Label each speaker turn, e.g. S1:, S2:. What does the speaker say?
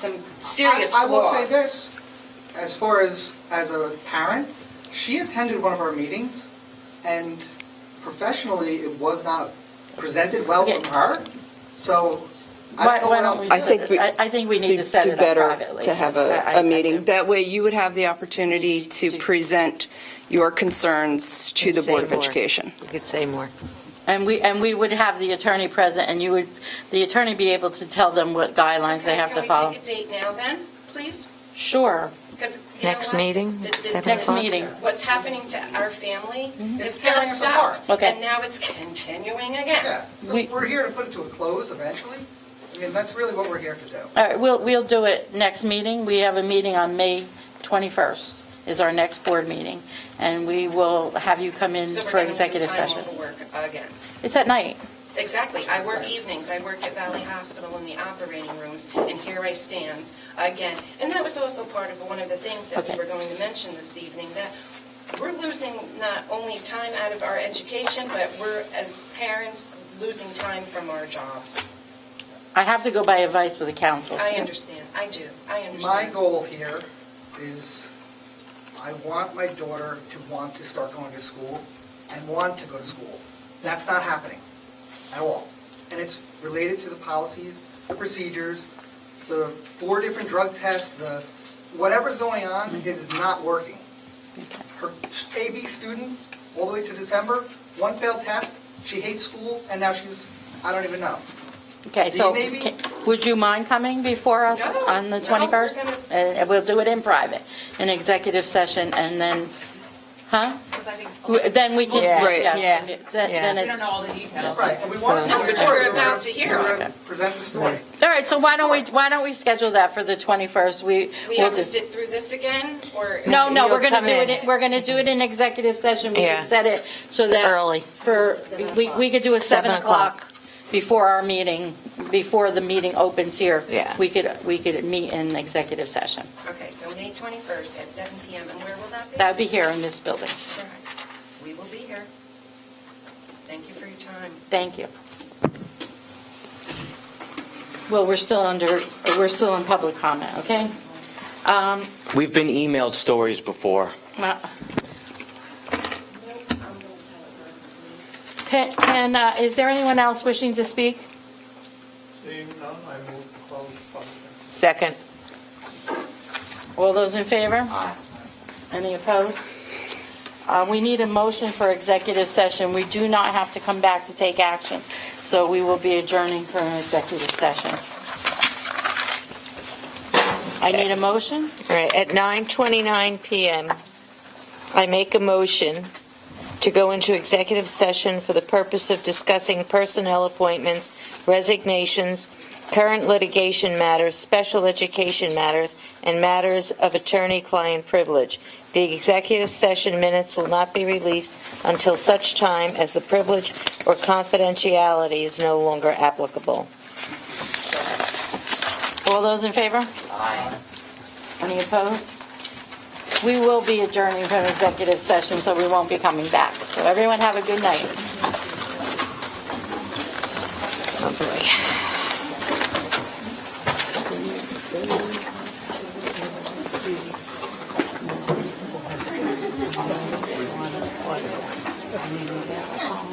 S1: some serious
S2: I, I will
S1: flaws.
S2: say this, as far as as a parent, she attended one of our meetings, and professionally, it was not presented well from her. So, I
S3: Why
S2: don't know what
S3: why don't
S2: else
S3: we
S2: to
S3: set
S4: I
S2: say.
S4: think
S3: it-
S4: we-
S3: I I think we need to
S4: It'd
S3: set
S4: do
S3: it up
S4: better
S3: privately.
S4: To
S3: Yes,
S4: have
S3: I- I-
S4: a,
S3: I
S4: a meeting.
S3: do.
S4: That way you would have the opportunity to
S3: To-
S4: present your concerns to the
S5: Say
S4: Board of
S5: more.
S4: Education.
S5: You could say more.
S3: And we, and we would have the attorney present, and you would, the attorney be able to tell them what guidelines they
S1: Okay,
S3: have to follow.
S1: Can we pick a date now then, please?
S3: Sure,
S1: 'Cause you know
S5: Next
S1: what?
S5: meeting,
S1: The- the-
S5: seven
S1: the-
S3: next meeting.
S1: What's happening to our family
S2: Mm-hmm. It's
S1: is
S2: tearing
S1: gonna
S2: us
S1: stop.
S2: apart.
S3: Okay.
S1: And now it's continuing again.
S2: Yeah, so
S3: We-
S2: we're here to put it to a close eventually. I mean, that's really what we're here to do.
S3: All right, we'll, we'll do it next meeting. We have a meeting on May 21st, is our next board meeting, and we will have you come in
S1: So
S3: for executive
S1: We're
S3: session.
S1: gonna lose time over work again.
S3: It's at night.
S1: Exactly. I work evenings. I work at Valley Hospital in the operating rooms, and here I stand again. And that was also part of one of the things that we
S3: Okay.
S1: were going to mention this evening, that we're losing not only time out of our education, but we're, as parents, losing time from our jobs.
S3: I have to go by advice of the council.
S1: I understand. I do. I
S2: My
S1: understand.
S2: goal here is, I want my daughter to want to start going to school and want to go to school. That's not happening at all. And it's related to the policies, the procedures, the four different drug tests, the, whatever's going on is not working. Her AB student, all the way to December, one failed test, she hates school, and now she's, I don't even know.
S3: Okay, so
S2: Maybe-
S3: ca- would you mind coming before us
S1: No,
S3: on
S1: no,
S3: the
S1: we're
S3: 21st?
S1: gonna-
S3: And and we'll do it in private, in executive session, and then, huh?
S6: Because I think,
S3: We- Then we can,
S5: Yeah.
S4: Right.
S3: yes,
S5: Yeah.
S3: then- then
S6: we
S3: it-
S6: don't know all the details.
S2: Right, and we want to.
S1: So- That's what we're about to hear.
S2: We're gonna Present the story.
S3: All right, so why don't we, why don't we schedule that for the 21st? We,
S1: We
S3: we'll
S1: have to
S3: just,
S1: sit through this again, or?
S3: no, no, we're
S5: You'll
S3: going to
S5: come
S3: do it,
S5: in.
S3: we're going to do it in executive session. We
S5: Yeah.
S3: can set it so that.
S5: Early.
S3: For, we, we could do a 7
S5: Seven o'clock.
S3: o'clock before our meeting, before the meeting opens here.
S5: Yeah.
S3: We could, we could meet in executive session.
S1: Okay, so May 21st at 7 PM, and where will that be?
S3: That would be here in this building.
S1: All right. We will be here. Thank you for your time.
S3: Thank you. Well, we're still under, we're still in public comment, okay? Um,
S7: We've been emailed stories before.
S3: uh,
S1: No, I'm gonna tell it.
S3: Can- Can, uh, is there anyone else wishing to speak?
S8: Seeing none, I move to close public hearing.
S5: Second.
S3: All those in favor? Any opposed? Uh, We need a motion for executive session. We do not have to come back to take action, so we will be adjourning for an executive session. I need a motion?
S5: All right, at 9:29 PM, I make a motion to go into executive session for the purpose of discussing personnel appointments, resignations, current litigation matters, special education matters, and matters of attorney-client privilege. The executive session minutes will not be released until such time as the privilege or confidentiality is no longer applicable.
S3: All those in favor? Aye. Any opposed? We will be adjourning from executive session, so we won't be coming back. So everyone have a good night.
S5: Oh, boy.